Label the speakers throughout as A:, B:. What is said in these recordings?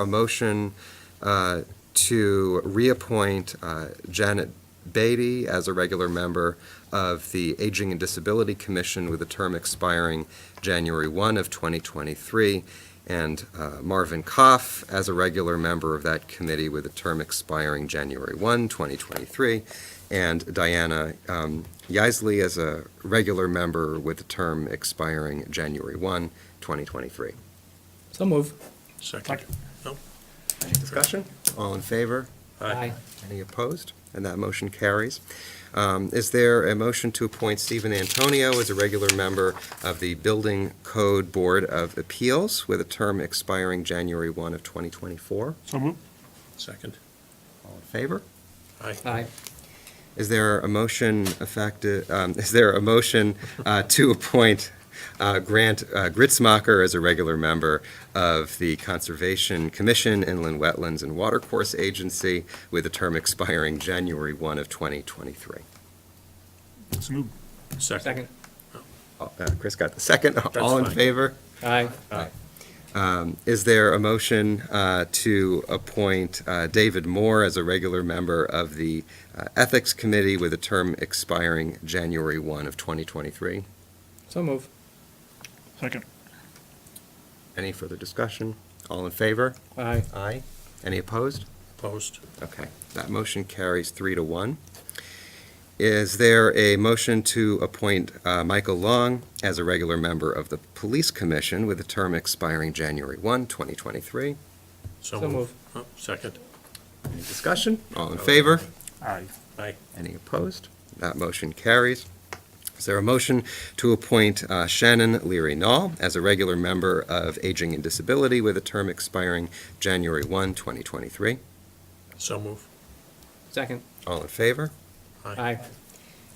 A: a motion uh, to reappoint uh, Janet Beatty as a regular member of the Aging and Disability Commission with a term expiring January 1 of 2023, and uh, Marvin Koff as a regular member of that committee with a term expiring January 1, 2023, and Diana um, Yaisley as a regular member with a term expiring January 1, 2023.
B: So move.
C: Second.
A: Discussion? All in favor?
C: Aye.
A: Any opposed? And that motion carries. Um, Is there a motion to appoint Stephen Antonio as a regular member of the Building Code Board of Appeals with a term expiring January 1 of 2024?
C: Second.
A: All in favor?
C: Aye.
B: Aye.
A: Is there a motion effective, um, is there a motion uh, to appoint uh, Grant uh, Gritzmacher as a regular member of the Conservation Commission, Inland Wetlands and Watercourse Agency with a term expiring January 1 of 2023?
C: So moved. Second.
B: Second.
A: Uh, Chris got the second. All in
C: fine.
A: favor?
B: Aye.
A: Um, Is there a motion uh, to appoint uh, David Moore as a regular member of the uh, Ethics Committee with a term expiring January 1 of 2023?
B: So move.
D: Second.
A: Any further discussion? All in favor?
B: Aye.
A: Aye. Any opposed?
C: Opposed?
A: Okay, that motion carries three to one. Is there a motion to appoint uh, Michael Long as a regular member of the Police Commission with a term expiring January 1, 2023?
B: So moved.
C: Oh, Second.
A: Any discussion? All in favor?
D: Aye.
C: Aye.
A: Any opposed? That motion carries. Is there a motion to appoint uh, Shannon Leary Knoll as a regular member of Aging and Disability with a term expiring January 1, 2023?
C: So moved.
B: Second.
A: All in favor?
B: Aye.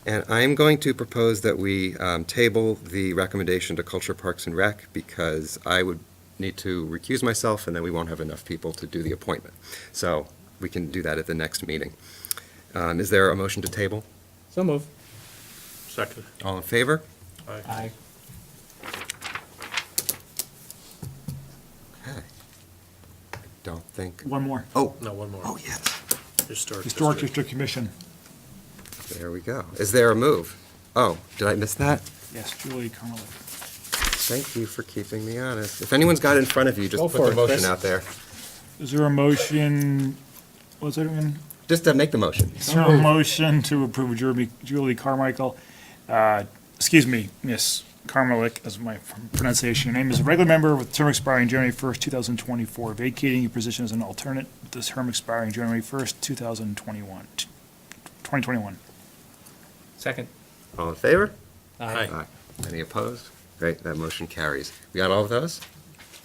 A: And I'm going to propose that we um, table the recommendation to Culture Parks and Rec because I would need to recuse myself and then we won't have enough people to do the appointment. So we can do that at the next meeting. Um, Is there a motion to table?
B: So move.
C: Second.
A: All in favor?
C: Aye.
A: Okay. I Don't think,
D: One more.
A: oh,
C: No, one more.
A: oh, yes,
C: Historic
D: Historic
C: District.
D: District Commission.
A: there we go. Is there a move? Oh, did I miss that?
D: Yes, Julie Connolly.
A: Thank you for keeping me honest. If anyone's got it in front of you, just
B: Go
A: put
B: for
A: the
B: it,
A: motion
B: Chris.
A: out there.
D: Is there a motion, was it in?
A: Just to make the motion.
D: Is there a motion to approve Jeremy- Julie Carmichael, uh, excuse me, Miss Carmelik, as my pronunciation, your name is a regular member with term expiring January 1st, 2024, vacating your position as an alternate with this term expiring January 1st, 2021, 2021.
B: Second.
A: All in favor?
C: Aye.
A: Aye. Any opposed? Great, that motion carries. We got all of those?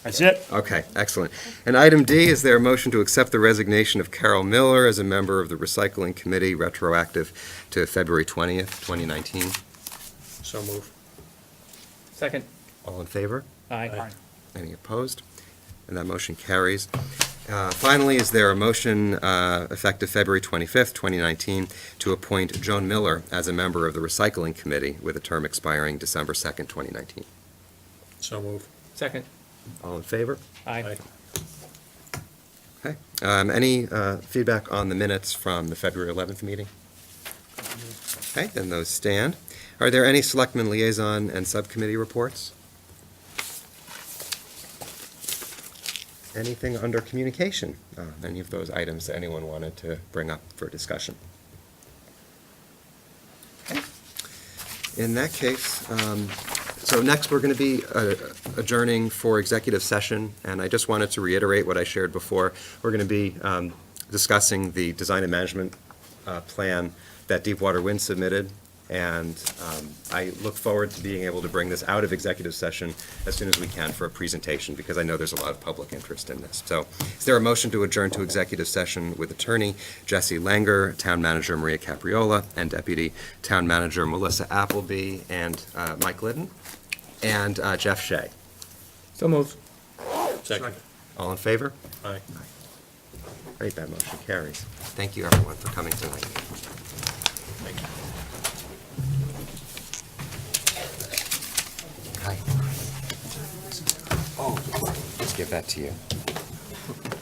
D: That's it.
A: Okay, excellent. And item D, is there a motion to accept the resignation of Carol Miller as a member of the Recycling Committee retroactive to February 20th, 2019?
C: So moved.
B: Second.
A: All in favor?
B: Aye.
A: Any opposed? And that motion carries. Uh, Finally, is there a motion uh, effective February 25th, 2019, to appoint Joan Miller as a member of the Recycling Committee with a term expiring December 2nd, 2019?
C: So moved.
B: Second.
A: All in favor?
B: Aye.
A: Okay. Um, Any uh, feedback on the minutes from the February 11th meeting? Okay, then those stand. Are there any selectmen liaison and subcommittee reports? Anything under communication? Uh, Any of those items that anyone wanted to bring up for discussion? Okay. In that case, um, so next, we're going to be uh, adjourning for executive session, and I just wanted to reiterate what I shared before. We're going to be um, discussing the design and management uh, plan that Deepwater Wind submitted, and um, I look forward to being able to bring this out of executive session as soon as we can for a presentation, because I know there's a lot of public interest in this. So is there a motion to adjourn to executive session with attorney Jesse Langer, town manager Maria Capriola, and deputy town manager Melissa Appleby, and uh, Mike Liddon? and uh, Jeff Shea.
B: So move.
C: Second.
A: All in favor?
C: Aye.
A: Great, that motion carries. Thank you, everyone, for coming tonight.
C: Thank you.
A: Hi. Oh, let's give that to you.